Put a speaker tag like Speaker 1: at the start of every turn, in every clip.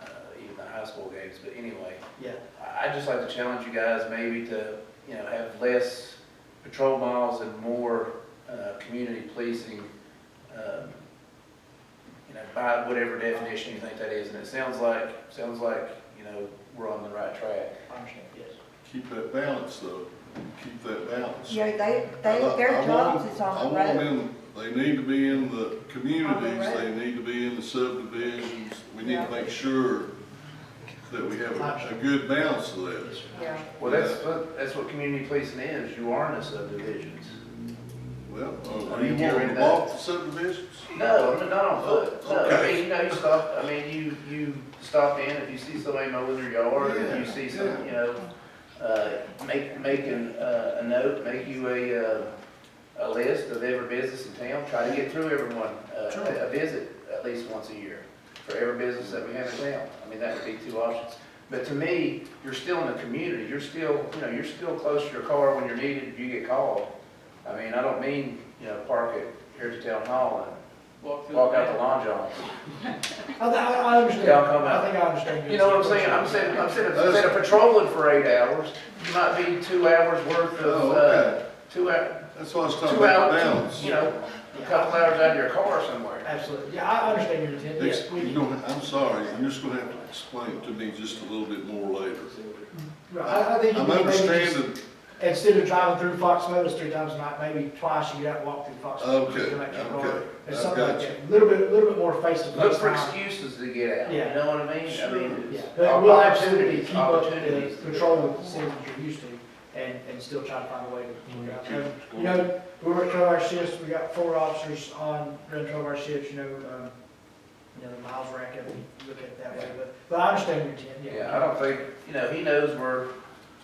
Speaker 1: uh, high school games, but anyway.
Speaker 2: Yeah,
Speaker 1: I- I'd just like to challenge you guys maybe to, you know, have less patrol miles and more uh, community policing, um, you know, by whatever definition you think that is. And it sounds like, sounds like, you know, we're on the right track.
Speaker 2: I understand, yes.
Speaker 3: Keep that balance though, keep that balance.
Speaker 4: Yeah, they,
Speaker 3: I-
Speaker 4: they,
Speaker 3: I
Speaker 4: their
Speaker 3: want
Speaker 4: jobs
Speaker 3: them-
Speaker 4: is on the
Speaker 3: I want
Speaker 4: road.
Speaker 3: them, they need to be in the communities,
Speaker 4: road.
Speaker 3: they need to be in the subdivisions. We need
Speaker 4: Yeah.
Speaker 3: to make sure that we have a, a good balance of that.
Speaker 4: Yeah,
Speaker 1: Well, that's, what- that's what community policing is. You are in the subdivisions.
Speaker 3: Well, uh,
Speaker 1: I
Speaker 3: are
Speaker 1: mean,
Speaker 3: you
Speaker 1: you're
Speaker 3: wanting
Speaker 1: in
Speaker 3: to
Speaker 1: that.
Speaker 3: walk the subdivisions?
Speaker 1: No, I'm not on foot. No, I
Speaker 3: Okay.
Speaker 1: mean, you know, you stop, I mean, you, you stop in, if you see somebody mowing their yard, if you
Speaker 3: Yeah,
Speaker 1: see some, you know, uh, make, make an, uh, a note, make you a, uh, a list of every business in town, try to get through everyone, uh,
Speaker 3: Sure.
Speaker 1: a a visit at least once a year for every business that we have in town. I mean, that would be two options. But to me, you're still in the community, you're still, you know, you're still close to your car when you're needed, if you get called. I mean, I don't mean, you know, park at Heritage Town Hall and walk out the lawn john.
Speaker 2: I, I, I understand,
Speaker 1: Yeah, I'll come out.
Speaker 2: I think I understand.
Speaker 1: You know what I'm saying? I'm saying, I'm saying, instead of patrolling for eight hours, you might be two hours worth of,
Speaker 3: Oh,
Speaker 1: uh,
Speaker 3: okay,
Speaker 1: two hour,
Speaker 3: that's what I was talking
Speaker 1: two
Speaker 3: about,
Speaker 1: hours,
Speaker 3: balance.
Speaker 1: you know, a couple hours out of your car somewhere.
Speaker 2: Absolutely, yeah, I I understand your intent,
Speaker 3: Ex-
Speaker 2: yes, we,
Speaker 3: You're gonna, I'm sorry, you're just gonna have to explain it to me just a little bit more later.
Speaker 2: right, I, I think. you
Speaker 3: I'm
Speaker 2: need maybe just-
Speaker 3: understanding,
Speaker 2: Instead of driving through Fox Meadows three times a night, maybe twice, you get out and walk through Fox. Meadows,
Speaker 3: Okay,
Speaker 2: come back to your
Speaker 3: okay,
Speaker 2: car. There's
Speaker 3: I've
Speaker 2: something like
Speaker 3: got you.
Speaker 2: that, a little bit, a little bit more face to face.
Speaker 1: Look for excuses to get out, you
Speaker 2: Yeah.
Speaker 1: know what I mean? I mean,
Speaker 2: Yeah,
Speaker 1: it's
Speaker 2: but we'll absolutely
Speaker 1: opportunities,
Speaker 2: keep up
Speaker 1: opportunities.
Speaker 2: the patrol with the cities that you're used to and, and still try to find a way to work out. Um, You know, we work twelve hour shifts, we got four officers on, run twelve hour shifts, you know, um, you know, the miles rack up, we look at it that way, but, but I understand your intent, yeah.
Speaker 1: Yeah, I don't think, you know, he knows where,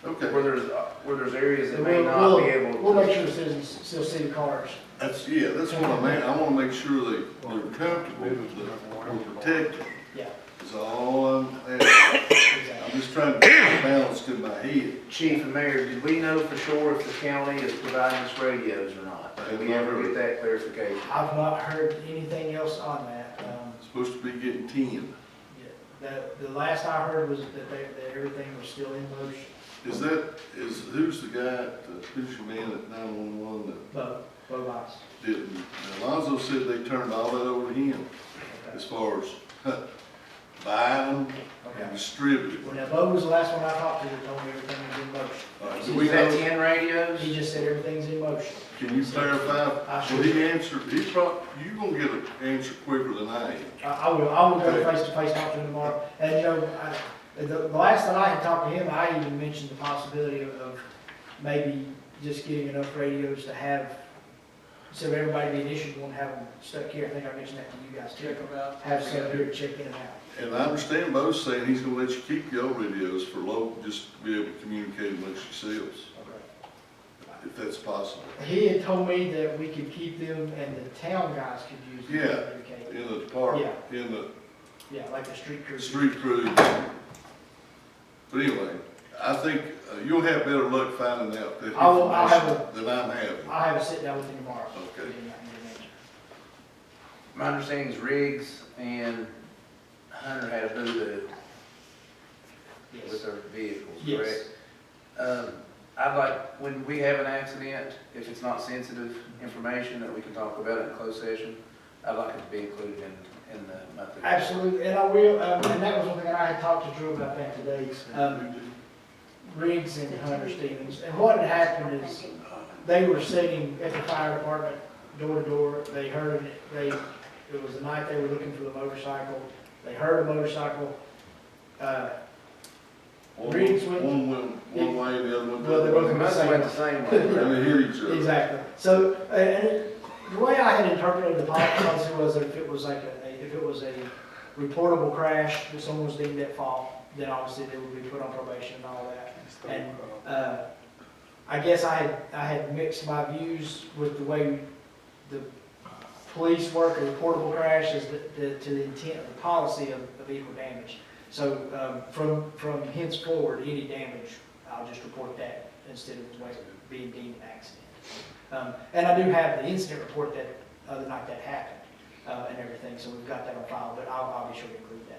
Speaker 3: okay,
Speaker 1: where there's, where there's areas that
Speaker 2: And
Speaker 1: may
Speaker 2: we'll-
Speaker 1: not be
Speaker 2: we'll-
Speaker 1: able to.
Speaker 2: We'll make sure the citizens still see the cars.
Speaker 3: that's, yeah, that's what I meant, I wanna make sure they, they're comfortable, that we're protected,
Speaker 2: Yeah,
Speaker 3: is all I'm asking. I'm
Speaker 2: exactly.
Speaker 3: just trying to get balanced in my head.
Speaker 1: Chief and Mayor, did we know for sure if the county is providing us radios or not? Did we ever get that clarification?
Speaker 2: I've not heard anything else on that. Um,
Speaker 3: Supposed to be getting ten.
Speaker 2: The, the last I heard was that they, that everything was still in motion,
Speaker 3: Is that, is, who's the guy, at- who's your man at nine-one-one that
Speaker 2: but, but lots.
Speaker 3: didn't? Alonzo said they turned all that over to him as far as huh, buying them and
Speaker 2: Okay.
Speaker 3: distributing.
Speaker 2: Well, now Bo was the last one I talked to that told me everything was in motion.
Speaker 3: All right,
Speaker 1: Is
Speaker 3: Do we
Speaker 1: that
Speaker 3: know,
Speaker 1: ten
Speaker 2: He
Speaker 1: radios?
Speaker 2: just said everything's in motion.
Speaker 3: can you
Speaker 2: I
Speaker 3: clarify?
Speaker 2: should-
Speaker 3: Well, he answered, he prob, you gonna get an answer quicker than I am.
Speaker 2: I, I will, I will go
Speaker 3: Okay.
Speaker 2: face to face talk to him tomorrow. And, you know, I, the, the last that I had talked to him, I even mentioned the possibility of, of maybe just getting enough radios to have, so everybody being issued won't have them stuck here. I think I mentioned that to you guys too. Have some here to check in and out.
Speaker 3: And I understand Bo's saying he's gonna let you keep your radios for low, just to be able to communicate amongst yourselves, if that's possible.
Speaker 2: He had told me that we could keep them and the town guys could use them. to
Speaker 3: Yeah.
Speaker 2: communicate.
Speaker 3: In the department, in the
Speaker 2: Yeah, like the street crew.
Speaker 3: Street crew. But anyway, I think uh, you'll have better luck finding out that
Speaker 2: I will- I'll have
Speaker 3: information than I'm having.
Speaker 2: I'll have a sit down with him tomorrow.
Speaker 3: Okay.
Speaker 1: My understanding is Riggs and Hunter had a boo-boo with
Speaker 2: Yes.
Speaker 1: their vehicles,
Speaker 2: Yes.
Speaker 1: correct? Um, I'd like, when we have an accident, if it's not sensitive information that we can talk about in closed session, I'd like it to be included in, in the monthly.
Speaker 2: Absolutely, and I will, um, and that was one thing that I had talked to Drew about that today, um, Riggs and Hunter Stevens. And what had happened is, they were sitting at the fire department, door to door, they heard, it. they, it was the night they were looking for the motorcycle, they heard a motorcycle. Uh,
Speaker 3: One
Speaker 2: Reed's went-
Speaker 3: one went one way, the other one.
Speaker 2: Well, they're
Speaker 3: the other
Speaker 1: They
Speaker 3: way.
Speaker 1: must have went the same way.
Speaker 3: And they hit each other.
Speaker 2: Exactly. So, uh, and it- the way I had interpreted the policy was that if it was like a, if it was a reportable crash, if someone was deemed at fault, then obviously they would be put on probation and all that. And, uh, I guess I had, I had mixed my views with the way the police work a reportable crash is the- the, to the intent of the policy of, of equal damage. So, um, from, from henceforward, any damage, I'll just report that instead of wait- being deemed an accident. Um, and I do have the incident um, report that, uh, the night that happened, uh, and everything, so we've got that on file, but I'll, I'll be sure to include that.